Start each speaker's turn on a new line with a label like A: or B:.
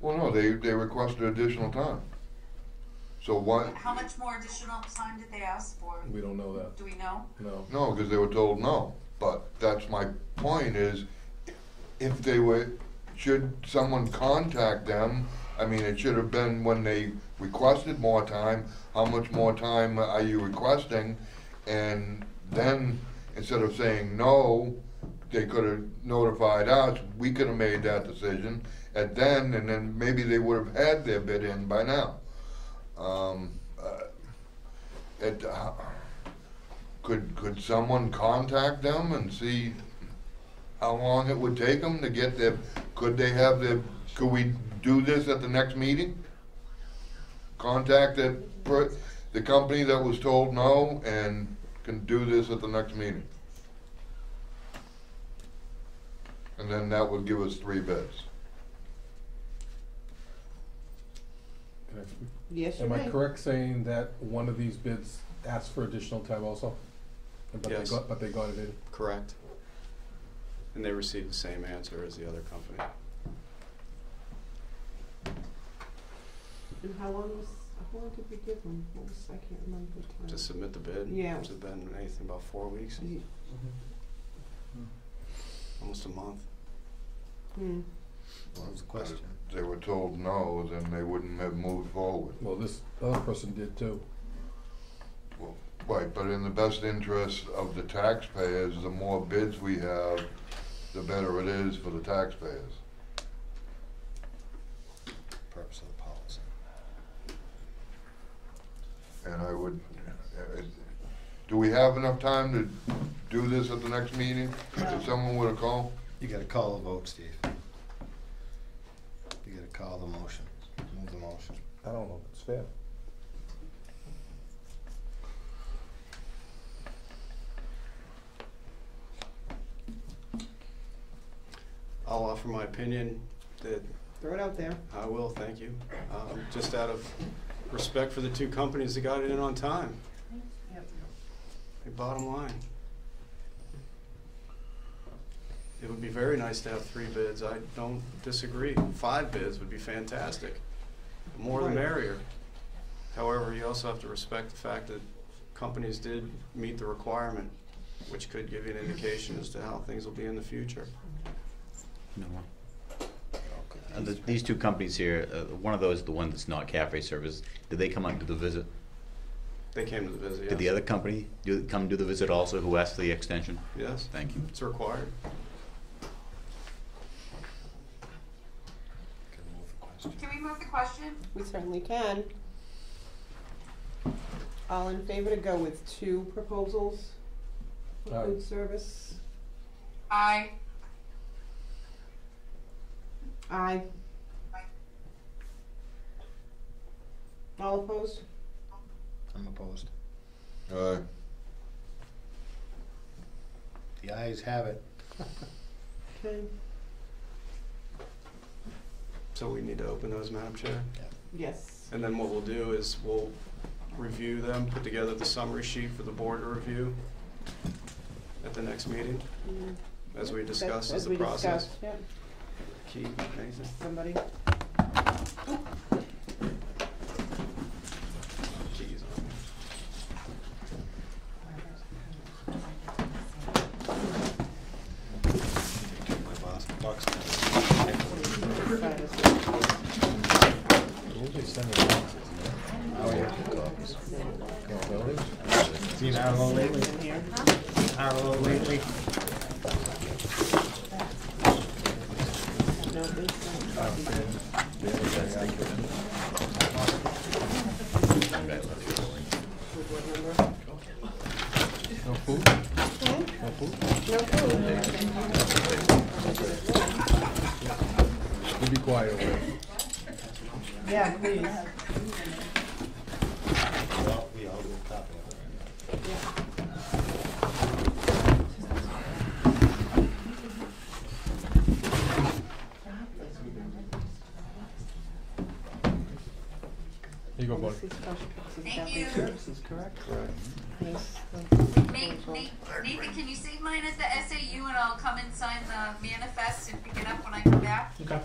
A: Well, no, they, they requested additional time. So why,
B: How much more additional time did they ask for?
C: We don't know that,
B: Do we know?
C: no.
A: no, because they were told no. But that's my point is, if they were, should someone contact them? I mean, it should have been when they requested more time, how much more time are you requesting? And then, instead of saying no, they could have notified us, we could have made that decision at then, and then maybe they would have had their bid in by now. Um, uh, it, uh, could, could someone contact them and see how long it would take them to get their, could they have their, could we do this at the next meeting? Contact the, per- the company that was told no and can do this at the next meeting? And then that would give us three bids.
C: Okay.
D: Yes, you
C: Am I
D: may.
C: correct saying that one of these bids asked for additional time also? But they
E: Yes.
C: got, but they got it in?
E: Correct. And they received the same answer as the other company.
D: And how long was, how long did we give them? What was, I can't remember the time.
E: To submit the bid?
D: Yeah. Mm-hmm.
E: It's been anything about four weeks,
D: Ye-
E: almost a month.
D: hmm.
F: What was the question?
A: If They were told no, then they wouldn't have moved forward.
C: Well, this other person did too.
A: Right, but in the best interest of the taxpayers, the more bids we have, the better it is for the taxpayers.
E: Purpose of the policy.
A: And I would, uh, do we have enough time to do this at the next meeting?
B: No.
A: If someone were to call?
F: You gotta call a vote, Steve. You gotta call the motion, move the motion.
C: I don't know if it's fair.
E: I'll offer my opinion that
D: Throw it out there.
E: I will, thank you. Um, just out of respect for the two companies that got it in on time.
B: Yep.
E: The Bottom line. It would be very nice to have three bids. I don't disagree. Five bids would be fantastic. The More the
D: Right.
E: merrier. However, you also have to respect the fact that companies did meet the requirement, which could give you an indication as to how things will be in the future.
G: No more. Uh, the- These two companies here, uh, one of those, the one that's not cafe service, did they come out and do the visit?
E: They came to the visit, yes.
G: Did the other company do, come do the visit also, who asked for the extension?
E: Yes,
G: Thank you.
E: it's required.
F: Gotta move the question.
B: Can we move the question?
D: We certainly can. All in favor to go with two proposals for
C: Aye.
D: food service?
B: Aye.
D: Aye. All opposed?
F: I'm opposed.
A: Uh,
F: The ayes have it.
D: Okay,
E: So we need to open those, Madam Chair.
D: yes.
E: And then what we'll do is we'll review them, put together the summary sheet for the board to review at the next meeting,
D: Mm,
E: as we
D: that's-
E: discussed as
D: as
E: the
D: we
E: process.
D: discussed, yeah.
E: Keith, anything?
D: Somebody,
E: Keys on.
F: My boss, box.
D: decide as well.
F: Oh, yeah. Seen Arlo lately?
D: In here.
F: Arlo lately?
D: No, this one. With what number?
C: No food? No food?
D: No food.
C: You be quiet over there.
D: Yeah, please.
F: Well, we all get a copy of it.
C: Here you go, buddy.
D: This is special purposes,
B: Thank
D: cafe
B: you.
D: services, correct?
E: Correct.
D: Yes.
B: Nate, Nate, Nathan, can you save mine at the SAU and I'll come and sign the manifest and pick it up when I come back?
H: Okay.